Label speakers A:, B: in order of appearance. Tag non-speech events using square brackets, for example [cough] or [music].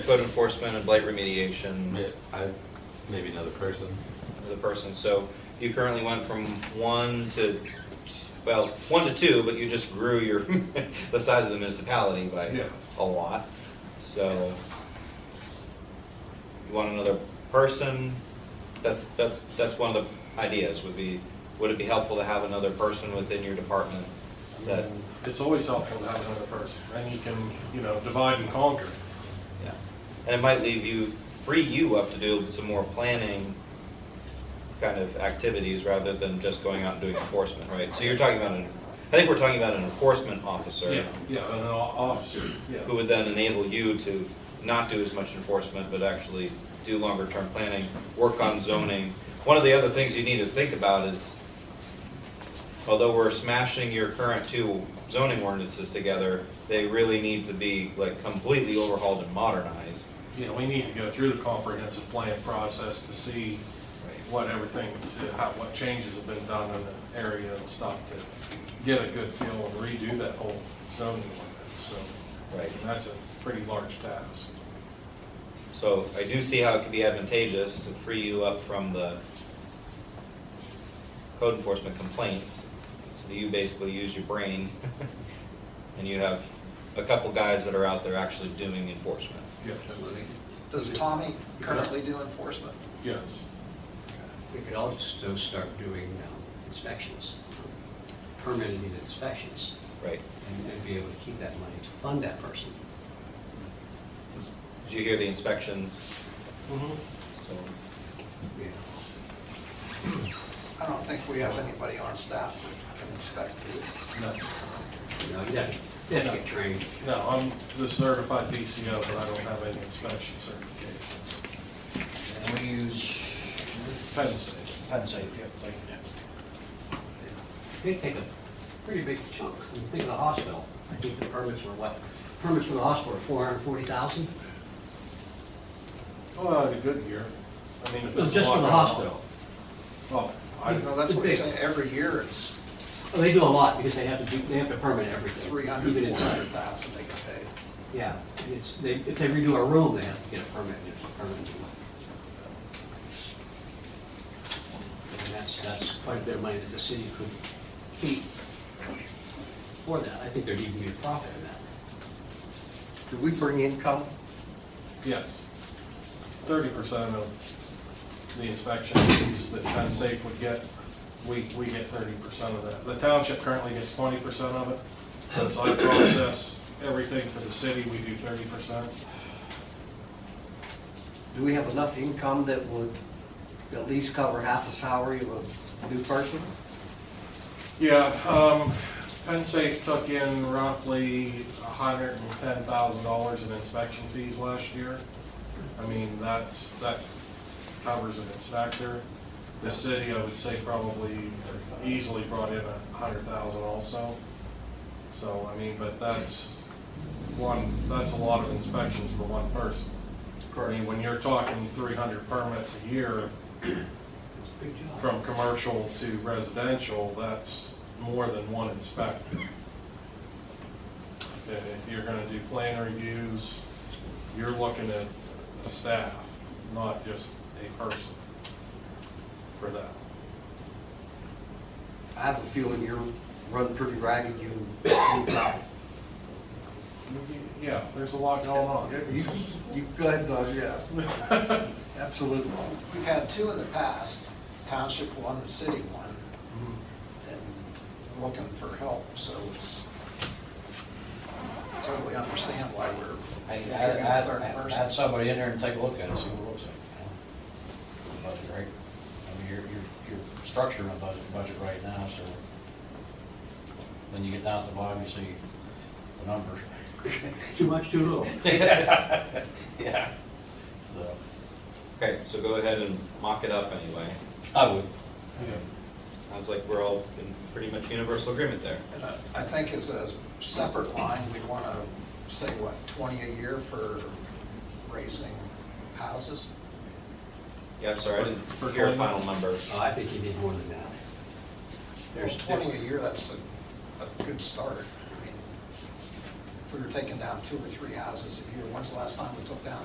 A: code enforcement and blight remediation
B: Yeah, I, maybe another person.
A: of the person. So you currently went from one to, well, one to two, but you just grew your, [laughs] the size of the municipality by
C: Yeah.
A: a lot. So you want another person? That's, that's, that's one of the ideas would be, would it be helpful to have another person within your department that,
C: It's always helpful to have another person, and you can, you know, divide and conquer.
A: yeah. And it might leave you, free you up to do some more planning kind of activities rather than just going out and doing enforcement, right? So you're talking about, an I think we're talking about an enforcement officer
C: Yeah, yeah, and an o- officer, yeah.
A: who would then enable you to not do as much enforcement, but actually do longer-term planning, work on zoning. One of the other things you need to think about is, although we're smashing your current two zoning ordinances together, they really need to be like completely overhauled and modernized.
C: You know, we need to go through the comprehensive plan process to see what everything, to how, what changes have been done in the area and stuff to get a good feel and redo that whole zoning ordinance, so.
A: Right.
C: and That's a pretty large task.
A: So I do see how it could be advantageous to free you up from the code enforcement complaints. So that you basically use your brain [laughs] and you have a couple guys that are out there actually doing enforcement.
C: Yes,
D: Does Tommy currently do enforcement?
C: yes.
E: We could also start doing um, inspections, permitted inspections,
A: Right.
E: and and be able to keep that money to fund that person.
A: Did you hear the inspections?
C: Mhm.
A: So,
E: Yeah.
D: I don't think we have anybody on staff that can inspect it.
C: No,
E: You know, you'd have to- you'd have to get trained.
C: No, I'm the certified DCO, but I don't have any inspection certifications.
F: And we use
C: Penn State.
F: Penn Safe, yeah, like,
E: They take a pretty big chunk. When you think of the hospital, I think the permits were what? Permits for the hospital, four hundred and forty thousand?
C: Well, I had a good year. I mean, if
E: No,
C: it's
E: Oh, just for the
C: locked
E: hospital.
C: up- Oh, I,
D: No, that's what he's saying, every year it's
E: Well, They do a lot because they have to, do- they have to permit everything.
D: 300,
E: even inside.
D: 400,000 they get paid.
E: Yeah, it's, they, if they redo a room, they have to get a permit, and it's a permit. And that's, that's quite a bit of money that the city could keep for that. I think there'd even be a profit in that.
G: Do we bring income?
C: yes. Thirty percent of the inspection fees that Penn Safe would get, we, we get thirty percent of that. The township currently gets twenty percent of it, since I process everything for the city, we do thirty percent.
G: Do we have enough income that would at least cover half the salary of a new person?
C: Yeah, um, Penn Safe took in roughly hundred and ten thousand dollars in inspection fees last year. I mean, that's, that covers an inspector. The city, I would say, probably easily brought in a hundred thousand also. So, I mean, but that's one, that's a lot of inspections for one person. I mean, when you're talking three hundred permits a year,
E: It's a big job.
C: from commercial to residential, that's more than one inspector. And if you're gonna do plan reviews, you're looking at a staff, not just a person for that.
G: I have a feeling you're running pretty ragged, you, you,
C: Yeah, there's a lot going on.
G: you, you go ahead, Doug, yeah.
D: [laughs]
G: Absolutely.
D: We've had two in the past, township one, the city one,
G: Mm-hmm.
D: and looking for help, so it's totally understand why we're.
F: I,
D: looking
F: I,
D: at a third
F: I,
D: person.
F: had somebody in there and take a look at it, see what it looks like. you know? Budget right, I mean, you're, you're, you're structuring a budget, budget right now, so when you get down to the bottom, you see the numbers. [laughs]
E: Too much, too little.
F: Yeah. So,
A: okay, so go ahead and mock it up anyway.
F: I would,
A: Sounds like we're all in pretty much universal agreement there.
D: And I I think as a separate line, we want to say, what, 20 a year for raising houses?
A: Yeah, I'm sorry, I didn't
C: For
A: hear a
C: climate?
A: final number.
E: Oh, I think you need more than that. There's
D: Well, 20 a year, that's a, a good start. I mean, If we were taking down two or three houses a year, when's the last time we took down